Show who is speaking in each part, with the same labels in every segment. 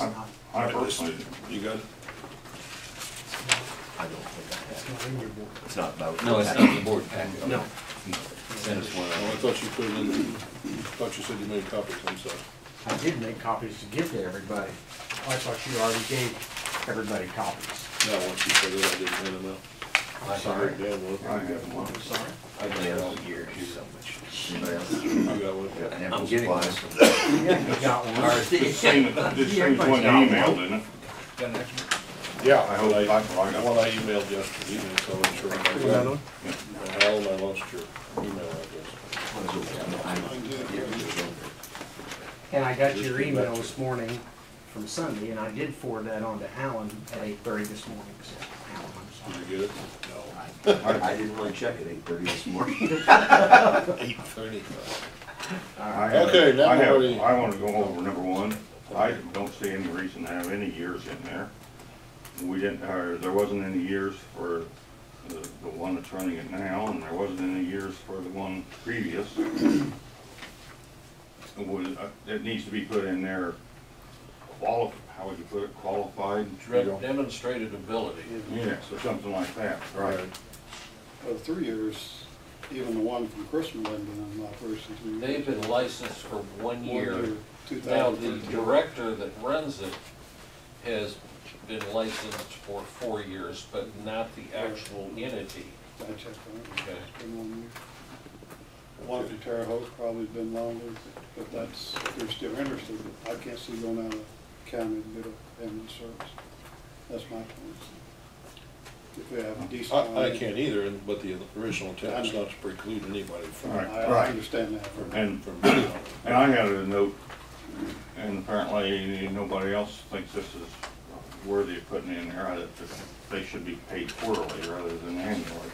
Speaker 1: I
Speaker 2: Alright,
Speaker 1: personally,
Speaker 2: just- You good?
Speaker 3: I don't think I have.
Speaker 4: not in your board.
Speaker 3: It's not about.
Speaker 5: No, it's not in the board packet.
Speaker 3: No.
Speaker 5: Send us one.
Speaker 2: Oh, I thought you put it in, I thought you said you made copies, I'm sorry.
Speaker 4: I did make copies to give to everybody. I thought you already gave everybody copies.
Speaker 2: No, once you said that, I didn't hand them out.
Speaker 4: I'm sorry.
Speaker 2: Damn, well,
Speaker 1: I have one.
Speaker 4: I'm sorry.
Speaker 3: I've been all year, here's so much.
Speaker 5: Anybody else?
Speaker 2: I got one.
Speaker 3: Yeah, and
Speaker 5: I'm getting
Speaker 3: supplies.
Speaker 4: Yeah, you got one.
Speaker 1: This thing, this thing's
Speaker 4: Everybody's
Speaker 1: one
Speaker 4: got
Speaker 1: email,
Speaker 4: one.
Speaker 1: didn't it?
Speaker 5: Got an extra?
Speaker 1: Yeah, I hope, I, I
Speaker 2: The one
Speaker 1: got,
Speaker 2: I emailed yesterday evening, so I'm sure. I got it. And Alan, I lost your email address.
Speaker 4: And I got your email this morning from Sunday, and I did forward that on to Alan at eight thirty this morning, so, Alan, I'm sorry.
Speaker 2: Did you get it?
Speaker 3: I didn't really check at eight thirty this morning.
Speaker 2: Eight thirty.
Speaker 1: I have,
Speaker 2: Okay, now
Speaker 1: I
Speaker 2: we're
Speaker 1: have,
Speaker 2: ready.
Speaker 1: I wanna go over number one. I don't see any reason to have any years in there. We didn't, or there wasn't any years for the, the one that's running it now, and there wasn't any years for the one previous. It was, uh, it needs to be put in there, quali, how would you put it, qualified?
Speaker 2: Demonstrated ability.
Speaker 1: Yes, or something like that, right?
Speaker 6: Well, three years, even the one from Chrisman had been in operation three years.
Speaker 7: They've been licensed for one
Speaker 6: One
Speaker 7: year.
Speaker 6: year,
Speaker 7: Now, the
Speaker 6: 2013.
Speaker 7: director that runs it has been licensed for four years, but not the actual entity.
Speaker 6: I checked on it.
Speaker 7: Okay.
Speaker 6: It's been one year. One from Terre Haute probably been longer, but that's, if they're still interested, I can't see going out of county to get a ambulance service. That's my point. If we have a decent.
Speaker 2: I, I
Speaker 6: one,
Speaker 2: can't either, and- but the original intent is not to preclude anybody from,
Speaker 1: Right.
Speaker 6: I understand that.
Speaker 2: from,
Speaker 1: And-
Speaker 2: from.
Speaker 1: And I had a note, and apparently nobody else thinks this is worthy of putting in there, that they should be paid quarterly rather than annually.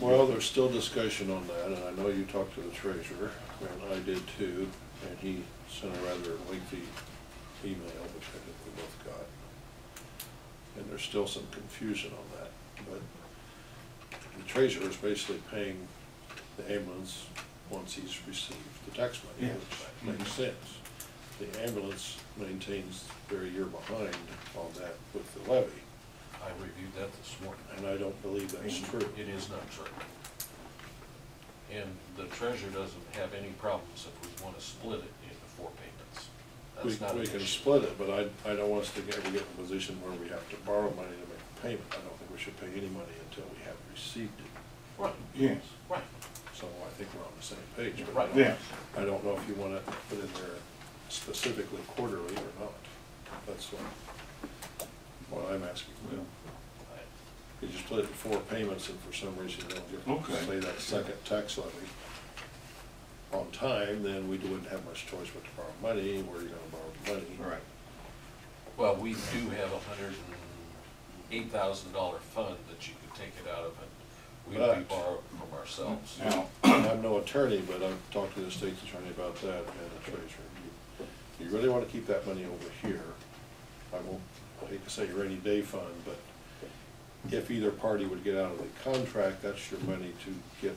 Speaker 2: Well, there's still discussion on that, and I know you talked to the treasurer, and I did too, and he sent a rather lengthy email, which I think we both got. And there's still some confusion on that, but the treasurer is basically paying the ambulance once he's received the tax money,
Speaker 1: Yeah.
Speaker 2: which makes sense. The ambulance maintains they're a year behind on that with the levy,
Speaker 7: I reviewed that this morning.
Speaker 2: and I don't believe that's true.
Speaker 7: It is not true. And the treasurer doesn't have any problems if we want to split it into four payments.
Speaker 2: We,
Speaker 7: That's not an
Speaker 2: we can
Speaker 7: issue.
Speaker 2: split it, but I, I don't want us to get, we get in a position where we have to borrow money to make a payment. I don't think we should pay any money until we have received it.
Speaker 7: Right,
Speaker 1: Yes.
Speaker 7: right.
Speaker 2: So I think we're on the same page, but I
Speaker 7: Right.
Speaker 2: don't-
Speaker 1: Yes,
Speaker 2: I don't know if you wanna put in there specifically quarterly or not. That's what, what I'm asking.
Speaker 1: Well.
Speaker 2: You just split it in four payments and for some reason you don't
Speaker 1: Okay.
Speaker 2: get, say that second tax levy on time, then we wouldn't have much choice but to borrow money, where you're gonna borrow the money.
Speaker 1: all right.
Speaker 7: Well, we do have a hundred and eight thousand dollar fund that you could take it out of, and we'd be
Speaker 2: But-
Speaker 7: borrowing from ourselves.
Speaker 1: Now,
Speaker 2: I'm no attorney, but I've talked to the state's attorney about that and the treasurer. You- You really want to keep that money over here. I won't, I hate to say rainy day fund, but if either party would get out of the contract, that's your money to get,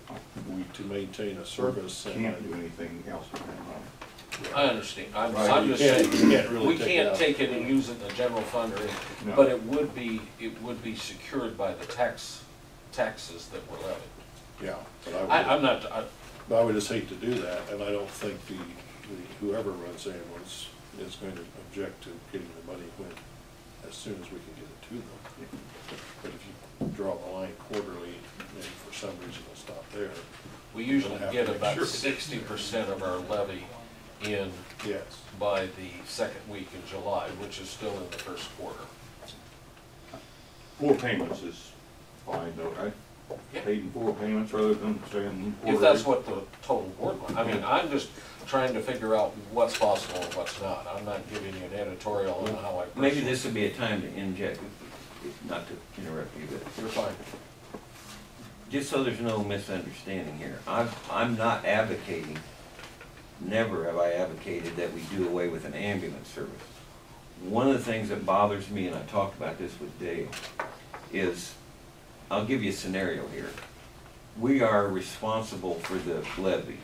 Speaker 1: we
Speaker 2: to maintain a service. and-
Speaker 1: can't do anything else with that money.
Speaker 7: I understand, I'm,
Speaker 2: Right,
Speaker 7: I'm
Speaker 2: you
Speaker 7: just
Speaker 2: can't- you can't
Speaker 7: saying,
Speaker 2: really
Speaker 7: we
Speaker 2: take it
Speaker 7: can't
Speaker 2: out.
Speaker 7: take it and use it in the general fund or,
Speaker 1: No.
Speaker 7: anything, but it would be, it would be secured by the tax, taxes that were levied.
Speaker 2: Yeah, but
Speaker 7: I,
Speaker 2: I
Speaker 7: I'm not, I,
Speaker 2: would, I would just hate to do that, and I don't think the, the- whoever runs ambulance is going to object to getting the money when, as soon as we can get it to them. But if you draw the line quarterly, and for some reason it's not there,
Speaker 7: we usually
Speaker 2: We'll have
Speaker 7: get
Speaker 2: to make
Speaker 7: about
Speaker 2: sure.
Speaker 7: sixty percent of our levy in
Speaker 2: yes.
Speaker 7: by the second week in July, which is still in the first quarter.
Speaker 1: Four payments is fine though, right?
Speaker 7: Yeah.
Speaker 1: Paid in four payments rather than saying quarterly.
Speaker 7: If that's what the total board wants. I mean, I'm just trying to figure out what's possible and what's not. I'm not giving you an editorial on how I.
Speaker 5: Maybe this would be a time to inject, not to interrupt you, but
Speaker 7: You're fine.
Speaker 5: just so there's no misunderstanding here, I'm, I'm not advocating, never have I advocated that we do away with an ambulance service. One of the things that bothers me, and I talked about this with Dale, is, I'll give you a scenario here. We are responsible for the levy.